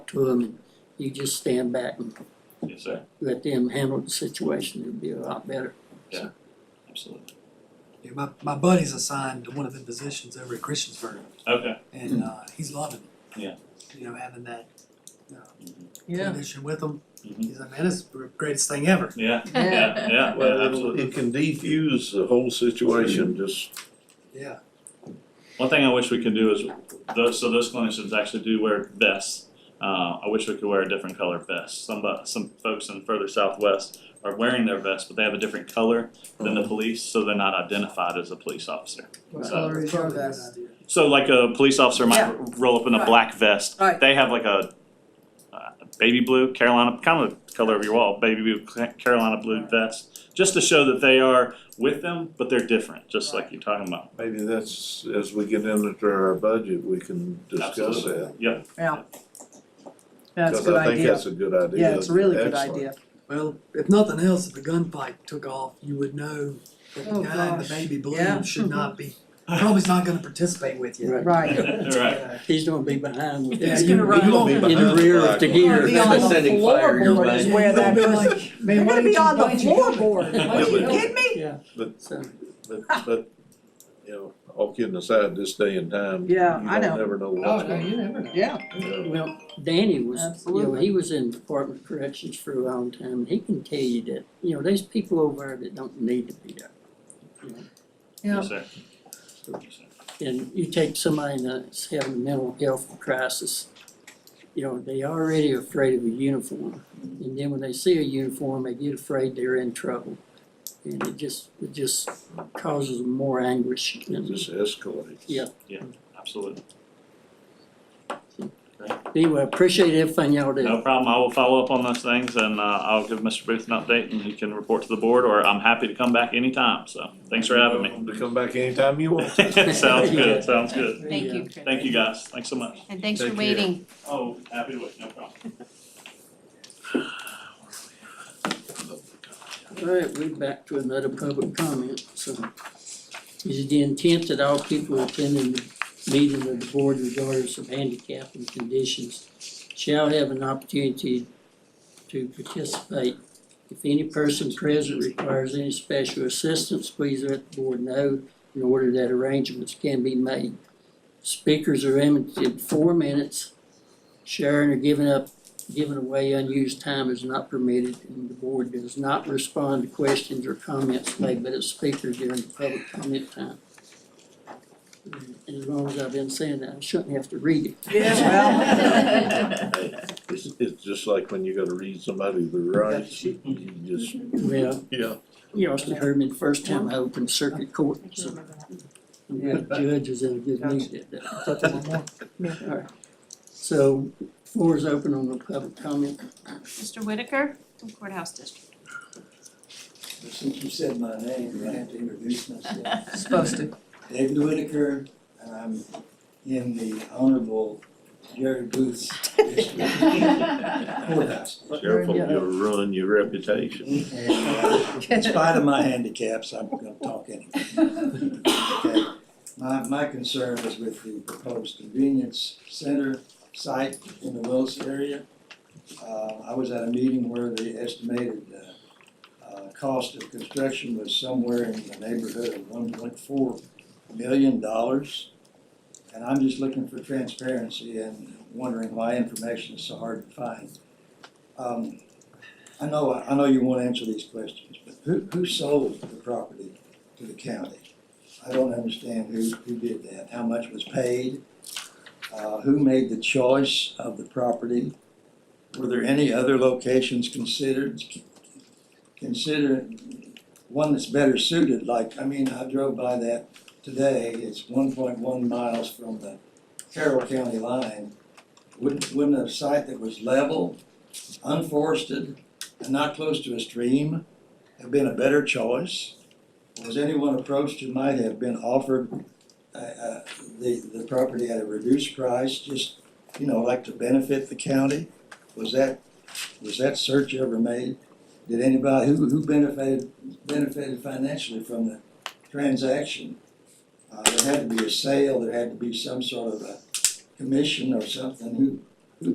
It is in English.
to them, you just stand back and Yes, sir, let them handle the situation, it'd be a lot better. absolutely. Yeah, my, my buddy's assigned to one of the positions over at Christiansburg, Okay. and uh, he's loving it. Yeah. You know, having that Mhm. condition with him, Mhm. he's like, man, this is the greatest thing ever. Yeah, yeah, yeah, Well, well, it'll- absolutely. It can defuse the whole situation, just, Yeah. One thing I wish we could do is, those, so those clinicians actually do wear vests. Uh, I wish we could wear a different color vest. Some, bu- some folks in further southwest are wearing their vests, but they have a different color than the police, so they're not identified as a police officer. What So- color is your Probably a good vest? idea. So like a police officer might Yeah. r- roll up in a Right. black vest. Right. They have like a uh, baby blue Carolina, kind of the color of your wall, baby blue Ca- Carolina blue Right. vest, just to show that they are with them, but they're different, just like Right. you're talking about. maybe that's, as we get into our budget, we can discuss Absolutely. that. Yep. Yeah. That's a Cause good I think idea. that's a good idea. Yeah, it's a really good Excellent. idea. Well, if nothing else, if the gunfight took off, you would know that the Oh, guy in the gosh. baby Yeah. blue should not be, probably not gonna participate with you. Right. Right. Right. He's gonna be behind with Yeah, that, He's in gonna run over. the rear of the He's gear. Be on the uh, Setting fire your floorboard is way. where that You'll be goes. like, They're man, why gonna be didn't you- on the why'd you do floorboard. that? Are Yeah, you but- kidding me? Yeah, But, so, but, but, you know, all kidding aside, this day and time, you Yeah, don't I know. never know what's going Oh, never know. Yeah, on. well, Danny was, you know, Absolutely. he was in Department of Corrections for a long time, he can tell you that, you know, there's people over there that don't need to be there. yeah. Yes, sir. Yes, sir. and you take somebody that's having a mental health crisis, you know, they already afraid of a uniform. And then when they see a uniform, they get afraid they're in trouble. And it just, it just causes them more anguish. It And just escalates. Yeah. Absolutely. Anyway, I appreciate everything y'all do. No problem. I will follow up on those things and uh, I'll give Mr. Booth an update and he can report to the board or I'm happy to come back anytime. So thanks for having me. To come back anytime you want. Sounds good, sounds good. Thank you, Chris. Thank you, guys. Thanks so much. And thanks for Take care. waiting. Oh, happy to wait, no problem. Alright, we're back to another public comment, so. Is it the intent that all people attending the meeting of the board regardless of handicap and conditions shall have an opportunity to participate? If any person present requires any special assistance, please let the board know in order that arrangements can be made. Speakers are limited to four minutes. Sharing or giving up Giving away unused time is not permitted, and the board does not respond to questions or comments made by the speaker during the public comment time. And As long as I've been saying that, I shouldn't have to read it. Yeah, well. It's, it's just like when you gotta read somebody the rights, you just, Well, yeah, you also heard me the first time I opened circuit court, so the judge is in a good mood that day. All right. So, floor is open on the public comment. Mr. Whitaker from Courthouse District. Since you said my name, I have to introduce myself. Supposed to. David Whitaker, I'm in the Honorable Jerry Booth's district courthouse. careful, you'll ruin your reputation. And, uh, In spite of my handicaps, I'm gonna talk anyway. Okay. My, my concern is with the proposed convenience center site in the Willis area. Uh, I was at a meeting where the estimated, uh, uh, cost of construction was somewhere in the neighborhood of one point four million dollars. And I'm just looking for transparency and wondering why information is so hard to find. Um, I know, I know you won't answer these questions, but who, who sold the property to the county? I don't understand who, who did that, how much was paid, uh, who made the choice of the property? Were there any other locations considered? Consider one that's better suited, like, I mean, I drove by that today, it's one point one miles from the Carroll County line. Wouldn't, wouldn't a site that was level, unforested, and not close to a stream have been a better choice? Was anyone approached who might have been offered uh uh the the property at a reduced price, just, you know, like to benefit the county? Was that, was that search ever made? Did anybody, who who benefited benefited financially from the transaction? Uh there had to be a sale, there had to be some sort of a commission or something, who